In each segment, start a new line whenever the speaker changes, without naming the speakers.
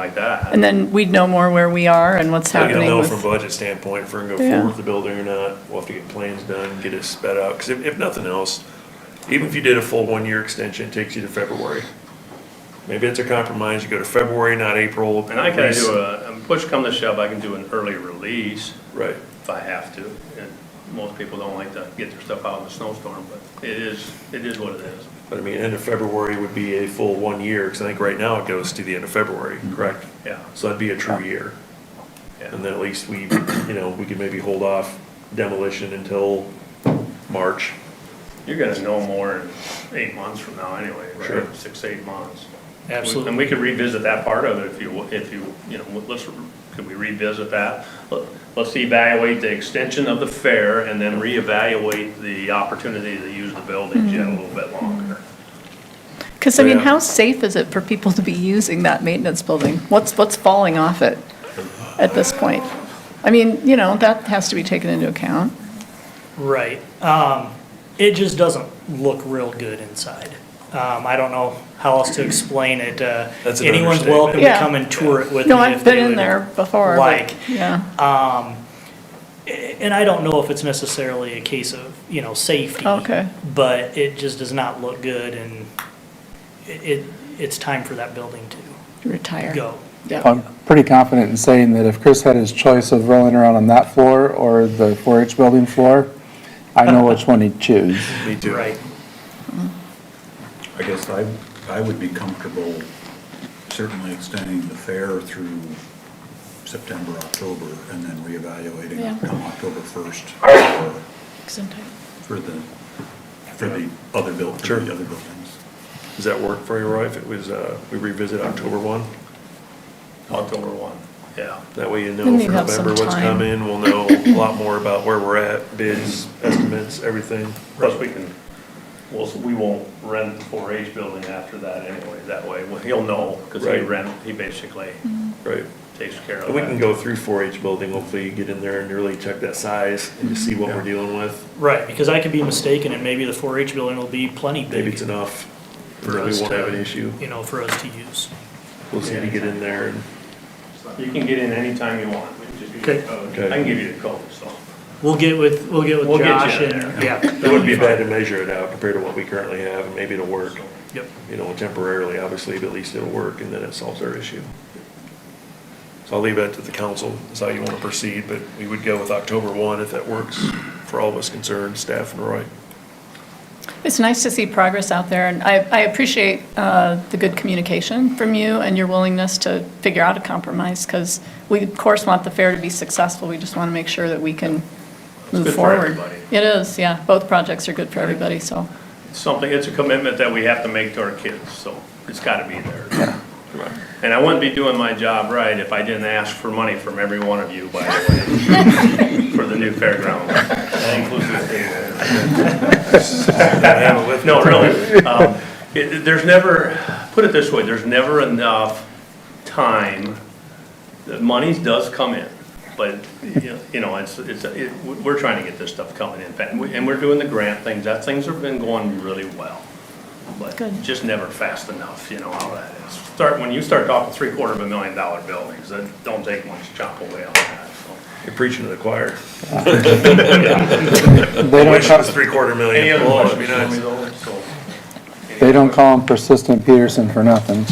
like that.
And then we'd know more where we are and what's
We're gonna
happening
know
with.
from a budget standpoint if we're gonna go
Yeah.
forward with the building or not. We'll have to get plans done, get it sped out, because if, if nothing else, even if you did a full one-year extension, it takes you to February. Maybe it's a compromise, you go to February, not April.
And I can do a, um, push come to shove, I can do an early release
Right,
if I have to. And most people don't like to get their stuff out in the snowstorm, but it is, it is what it is.
but I mean, end of February would be a full one year, because I think right now it goes to the end of February,
Mm-hmm.
correct?
Yeah,
So that'd be a true year.
yeah.
And then at least we, you know, we could maybe hold off demolition until March.
You're gonna know more in eight months from now anyway,
Sure.
right? Six, eight months. And
Absolutely.
we could revisit that part of it if you, if you, you know, let's, could we revisit that? Let- Let's evaluate the extension of the fair and then reevaluate the opportunity to use the buildings yet a little bit longer.
Because, I mean,
Yeah.
how safe is it for people to be using that maintenance building? What's, what's falling off it at this point? I mean, you know, that has to be taken into account.
Right. Um, it just doesn't look real good inside. Um, I don't know how else to explain it. Uh,
That's an
anyone's
understatement.
welcome to
Yeah.
come and tour it with
No,
me
I've
if they
been in
would
there before. but-
Like,
Yeah.
and I don't know if it's necessarily a case of, you know, safety.
Okay.
But it just does not look good and it, it, it's time for that building to
Retire.
go.
Yeah.
I'm pretty confident in saying that if Chris had his choice of rolling around on that floor or the 4-H building floor, I know which one he'd choose.
Me too.
Right.
I guess I, I would be comfortable certainly extending the fair through September, October, and then
Yeah.
reevaluating come October 1st for- for the, for the other buil, for
Sure.
the other buildings.
Does that work for you, Roy? If it was, uh, we revisit October one?
October one, yeah.
That way you know
Then
for
you have some
November what's
time.
coming, we'll know a lot more about where we're at, bids, estimates, everything.
Plus, we can, we'll, we won't rent the 4-H building after that anyway, that way, well, he'll know, because he
Right.
rent, he basically
Right.
takes care of
And we can
that.
go through four H building, hopefully get in there and really check that size and just see what we're dealing with.
Right, because I could be mistaken and maybe the 4-H building will be plenty
Maybe it's
big,
enough.
For
Maybe
us
We won't
to-
have an issue.
you know, for us to use.
We'll see if you get in there and,
You can get in anytime you want, We can just give you the code.
Okay.
I can give you the code, so.
We'll get with, we'll get
We'll
with
get you
Josh
in
and,
there.
yeah.
it wouldn't be bad to measure it out compared to what we currently have, and maybe it'll work,
Yep.
you know, temporarily, obviously, but at least it'll work, and then it solves our issue. So I'll leave that to the council, is how you want to proceed, but we would go with October one if that works for all of us concerned, staff and Roy.
It's nice to see progress out there, and I, I appreciate uh, the good communication from you and your willingness to figure out a compromise, because we, of course, want the fair to be successful. We just want to make sure that we can
good
move
for
forward.
everybody.
It is, yeah. Both projects are good for everybody, so.
It's Something, it's a commitment that we have to make to our kids, so it's gotta be there. And I wouldn't be doing my job right if I didn't ask for money from every one of you, by the way, for the new fairground. That includes the stadium. No, really. Um, it- it- There's never, put it this way, there's never enough time. The money does come in, but, you know- you know, it's, it's, it- we're trying to get this stuff coming in. And we- And we're doing the grant things. That, things have been going really well. But
Good.
just never fast enough, you know how that is. Start, when you start talking three quarter of a million dollar buildings, that don't take much to chop away on that, so.
You're preaching to the choir.
They don't,
Wish it was
ca-
three quarter million.
Any other
Oh, it'd
questions?
be nice.
So-
they don't call him persistent Peterson for nothing.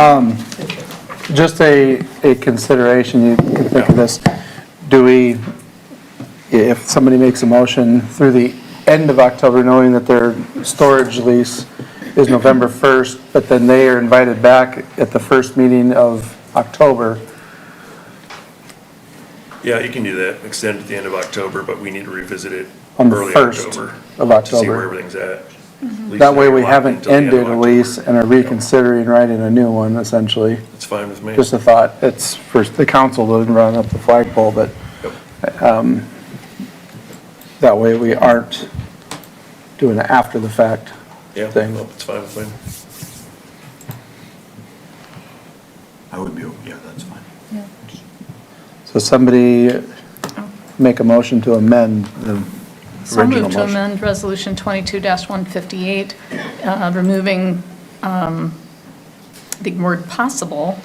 Um, Just a, a consideration, you can think of this. Do we, if somebody makes a motion through the end of October, knowing that their storage lease is November 1st, but then they are invited back at the first meeting of October,
Yeah, you can do that, extend at the end of October, but we need to revisit it
On the
early
first
October.
of
To see where
October. Mm-hmm.
everything's at. At least
That way we
locked
haven't
until the end of
ended a
October.
lease and are reconsidering writing a new one, essentially.
It's fine with me.
Just a thought, it's for the council to run up the flagpole, but
Yep.
um, that way we aren't doing an after-the-fact
Yeah,
thing.
well, it's fine with me.
I would be, yeah, that's fine.
So somebody make a motion to amend the
So I
original
move to
motion.
amend Resolution 22-158, uh, removing um, the word possible